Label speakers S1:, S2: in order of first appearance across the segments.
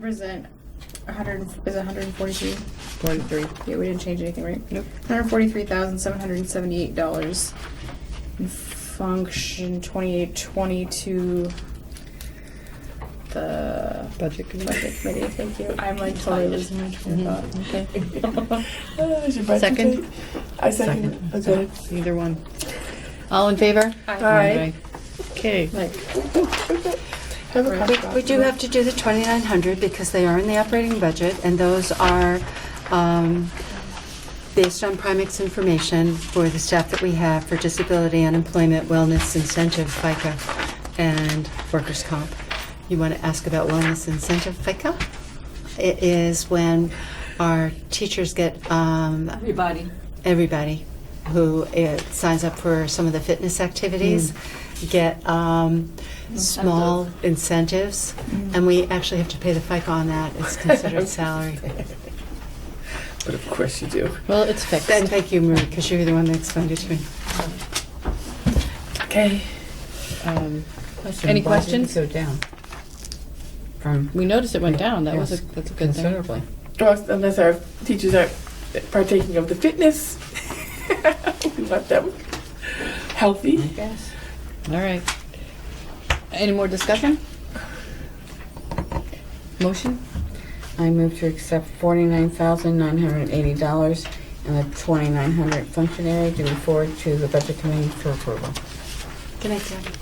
S1: present, a hundred, and- is it hundred and forty-three?
S2: Forty-three.
S1: Yeah, we didn't change anything, right?
S2: Nope.
S1: Hundred forty-three thousand, seven hundred and seventy-eight dollars. Function twenty-eight twenty to the
S2: Budget committee.
S1: budget committee, thank you. Mm-hmm. I'm like totally losing my train of thought.
S2: Okay.
S3: Uh, is your budget
S2: Second?
S3: tape? I second. Okay.
S2: Either one. All in favor?
S3: Aye.
S2: Okay.
S1: Like,
S3: Have a
S1: Right.
S3: couple
S4: We do have to do the 2,900 because they are in the operating budget, and those are um, based on Primex information for the staff that we have for disability, unemployment, wellness, incentive, FICA, and workers' comp. You want to ask about wellness incentive, FICA? It is when our teachers get um,
S5: Everybody.
S4: everybody who uh, signs up for some of the fitness activities
S2: Mm.
S4: get um, small incentives,
S1: Mm-hmm.
S4: and we actually have to pay the FICA on that. It's considered salary.
S3: But of course you do.
S2: Well, it's
S4: And
S2: fixed.
S4: thank you, Marie, because you were the one that explained it to me.
S3: Okay.
S2: Um, Any questions?
S6: Why did it go down? From,
S2: We noticed it went down. That was a,
S6: Yes,
S2: that's a good thing.
S6: considerably.
S3: Well, unless our teachers are partaking of the fitness, we want them healthy.
S2: Yes. All right. Any more discussion? Motion?
S6: I move to accept forty-nine thousand nine hundred and eighty dollars and the twenty-nine hundred functionary to be forwarded to the budget committee for approval.
S4: Good night, Deb.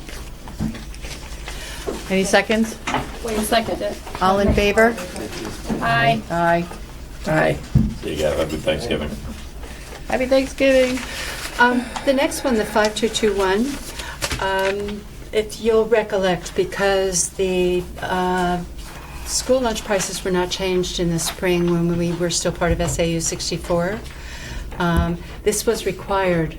S2: Any seconds?
S1: wait a second.
S2: All in favor?
S1: Aye.
S2: Aye.
S3: Aye.
S7: So you got happy Thanksgiving.
S2: Happy Thanksgiving.
S4: Um, The next one, the 5221, um, if you'll recollect, because the uh, school lunch prices were not changed in the spring when we were still part of SAU 64, um, this was required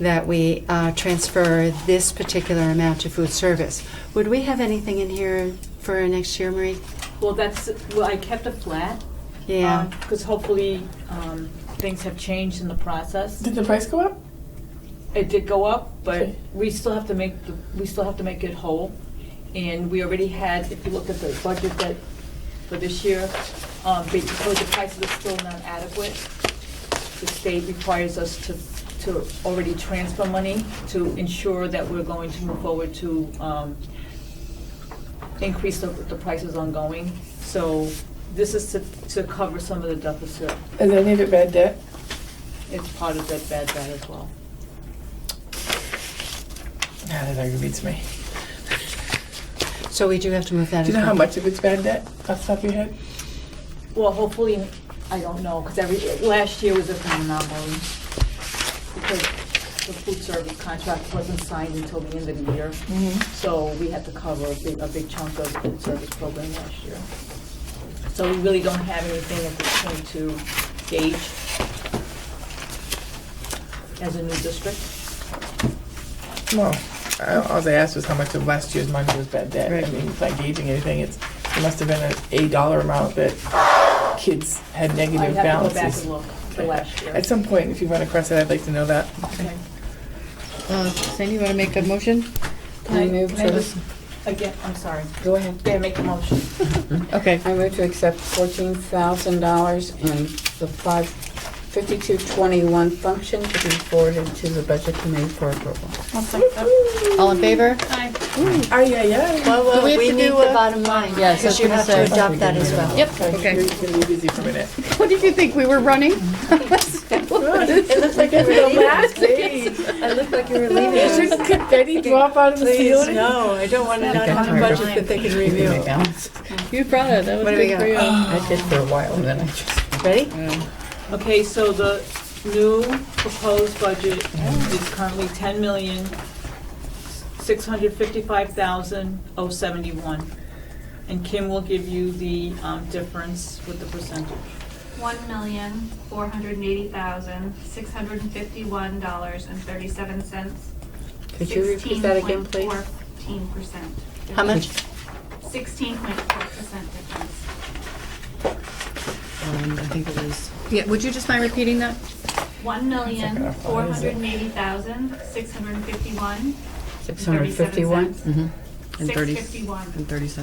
S4: that we uh, transfer this particular amount to food service. Would we have anything in here for next year, Marie?
S5: Well, that's, well, I kept it flat.
S4: Yeah.
S5: Because hopefully, um, things have changed in the process.
S3: Did the price go up?
S5: It did go up, but
S3: Okay.
S5: we still have to make, the we still have to make it whole. And we already had, if you look at the budget that, for this year, um, because the prices are still not adequate, the state requires us to, to already transfer money to ensure that we're going to move forward to, um, increase the, the prices ongoing. So this is to, to cover some of the deficit.
S3: Is any of it bad debt?
S5: It's part of that bad debt as well.
S3: Nah, that aggravates me.
S4: So we do have to move that.
S3: Do you know how
S4: into-
S3: much of it's bad debt off the top of your head?
S5: Well, hopefully, I don't know, because every, last year was a phenomenon, because the food service contract wasn't signed until the end of the year, so we had to cover a big, a big chunk of the food service program last year. So we really don't have anything at this point to gauge as a new district.
S3: Well, I- all they asked was how much of last year's money was bad debt. I
S2: Right.
S3: mean, it's not gauging anything. It's, it must have been a, a dollar amount that kids had
S5: I
S3: negative
S5: have to go back
S3: balances.
S5: and look for last year.
S3: At some point, if you run across that, I'd like to know that.
S5: Okay.
S2: Uh, Sandy, you want to make a motion?
S5: Can
S6: I move
S5: can I
S6: to,
S5: just- Again, I'm sorry.
S6: go ahead.
S5: Okay, make the motion.
S2: Okay.
S6: I move to accept fourteen thousand dollars and the five, fifty-two twenty-one function to be forwarded to the budget committee for approval.
S2: All in favor?
S3: Ay, ay, ay.
S4: Well,
S2: Do
S4: well,
S2: we have
S4: we
S2: to
S4: need
S2: do
S4: the
S2: a-
S4: bottom line,
S2: Yes, I was
S4: because you
S2: gonna
S4: have
S2: say.
S4: to adopt that as well.
S2: Yep.
S3: Okay,
S2: Okay.
S3: you're gonna be busy for a minute.
S2: What did you think? We were running?
S4: It looks like you were leaving. I look like you were leaving.
S3: Should confetti drop out of the
S4: Please,
S3: ceiling?
S4: no, I don't want to not have a budget that they can review.
S2: You brought it. That was
S4: What do we
S2: good for you.
S6: I did for a while and then I just.
S4: Ready?
S5: Okay, so the new proposed budget is currently ten million, six hundred fifty-five thousand, oh seventy-one. And Kim will give you the um, difference with the percentage.
S8: One million, four hundred and eighty thousand, six hundred and fifty-one dollars and thirty-seven cents.
S6: Could you repeat that again, please?
S8: Sixteen point fourteen percent.
S4: How much?
S8: Sixteen point four percent difference.
S2: Um, I think it was. Yeah, would you just mind repeating that?
S8: One million, four hundred and eighty thousand, six hundred and fifty-one.
S6: Six hundred fifty-one?
S2: Mm-hmm. And
S8: Six
S2: thirty-
S8: fifty-one.
S2: And thirty seconds.